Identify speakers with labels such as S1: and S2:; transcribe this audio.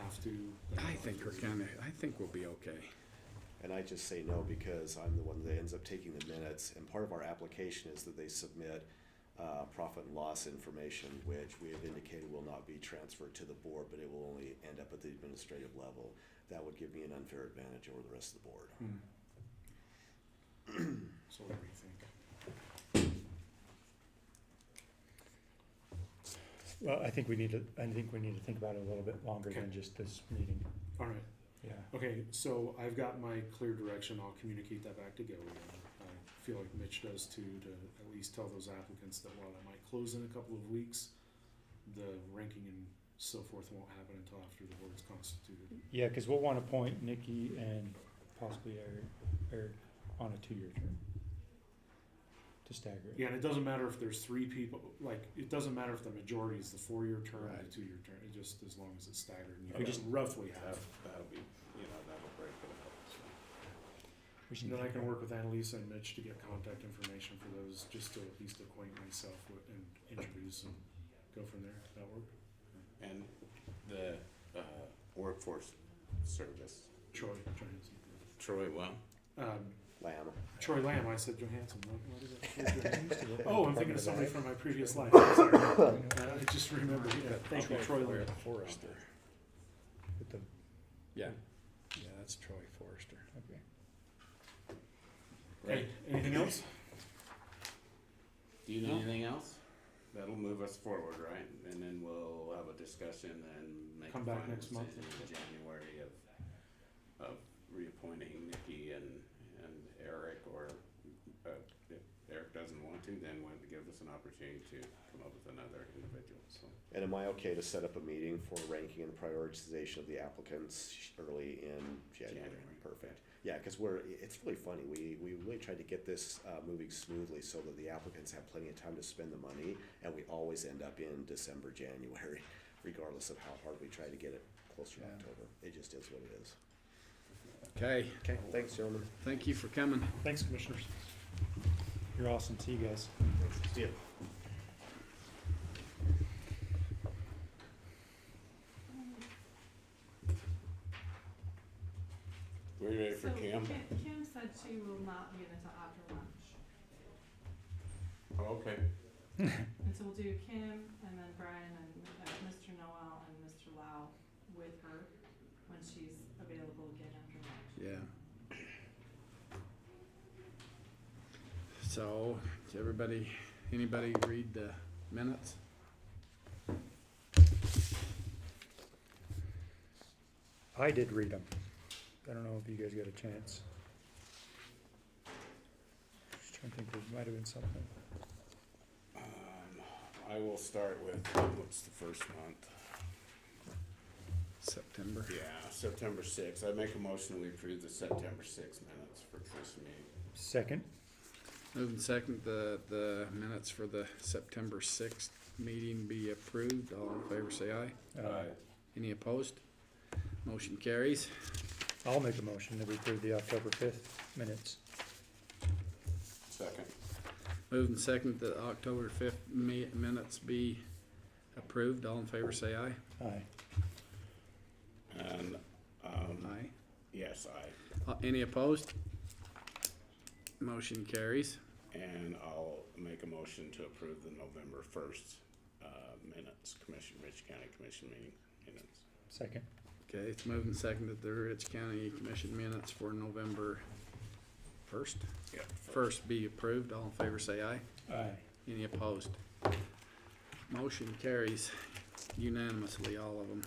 S1: have to.
S2: I think we're gonna, I think we'll be okay.
S3: And I just say no because I'm the one that ends up taking the minutes. And part of our application is that they submit uh, profit and loss information, which we have indicated will not be transferred to the board, but it will only end up at the administrative level. That would give me an unfair advantage over the rest of the board.
S1: Hmm. So what do we think?
S4: Well, I think we need to, I think we need to think about it a little bit longer
S1: Okay.
S4: than just this meeting.
S1: All right,
S4: Yeah.
S1: okay, so I've got my clear direction, I'll communicate that back to Gil again. I feel like Mitch does too, to at least tell those applicants that while it might close in a couple of weeks, the ranking and so forth won't happen until after the board's constituted.
S4: Yeah, because we'll want to appoint Nikki and possibly Eric, Eric on a two-year term. To stagger it.
S1: Yeah, and it doesn't matter if there's three people, like, it doesn't matter if the majority is the four-year term or the
S2: Right.
S1: two-year term, it just, as long as it's staggered, and you
S4: Okay.
S1: just roughly
S5: That,
S1: have.
S5: that'll be, you know, that'll break it up.
S4: We should
S1: And then I
S4: think
S1: can
S4: about-
S1: work with Annalisa and Mitch to get contact information for those, just to at least acquaint myself with and introduce and go from there. That work?
S5: so. And the, uh, workforce service,
S1: Troy Johansson.
S5: Troy, well,
S1: Um,
S3: Lamb,
S1: Troy Lamb, I said Johansson. What, what is
S4: I
S1: it?
S4: used to work in
S1: Oh, I'm
S4: the
S1: thinking of somebody
S4: Department
S1: from my previous life. I'm sorry. Uh, I just remembered. Yeah, thank you, Troy Lamb.
S2: Forrester.
S4: Ag with the-
S2: Yeah, yeah, that's Troy Forrester.
S4: okay.
S1: Okay, anything else?
S5: do you need anything else? That'll move us forward, right? And then we'll have a discussion and make a
S1: Come back
S5: final
S1: next month.
S5: decision in January of, of reappointing Nikki and, and Eric, or, uh, if Eric doesn't want to, then we'll give us an opportunity to come up with another individual, so.
S3: and am I okay to set up a meeting for ranking and prioritization of the applicants early in January?
S5: January.
S3: Perfect. Yeah, because we're, it's really funny, we, we really tried to get this uh, moving smoothly so that the applicants have plenty of time to spend the money, and we always end up in December, January, regardless of how hard we try to get it closer to
S2: Yeah.
S3: October. It just is what it is.
S2: Okay,
S3: Okay, thanks, gentlemen.
S2: thank you for coming.
S1: Thanks, commissioners.
S4: You're awesome. See you guys.
S3: See ya.
S5: Were you ready
S6: So Kim, Kim said she will not be in until after lunch.
S5: Okay.
S6: And so we'll do Kim and then Brian and uh, Mr. Noel and Mr. Lau with her when she's available again after lunch.
S2: Yeah. So, did everybody, anybody read the minutes?
S4: I did read them. I don't know if you guys got a chance. Just trying to think, there might have been something.
S5: Um, I will start with, what's the first month?
S2: September?
S5: Yeah, September sixth. I make a motion we approve the September sixth minutes for this meeting.
S4: Second,
S2: Moving second, the, the minutes for the September sixth meeting be approved. All in favor, say aye.
S4: uh,
S2: Any opposed? Motion carries.
S4: I'll make a motion that we approve the October fifth minutes.
S5: Second.
S2: Moving second, the October fifth mi- minutes be approved. All in favor, say aye.
S4: Aye.
S5: And, um,
S2: Aye.
S5: yes, I,
S2: Uh, Any opposed? Motion carries.
S5: and I'll make a motion to approve the November first, uh, minutes, Commission, Rich County Commission meeting minutes.
S4: Second.
S2: Okay, it's moving second that the Rich County Commission minutes for November first,
S5: Yeah.
S2: first be approved. All in favor, say aye.
S4: Aye.
S2: Any opposed? Motion carries unanimously, all of them.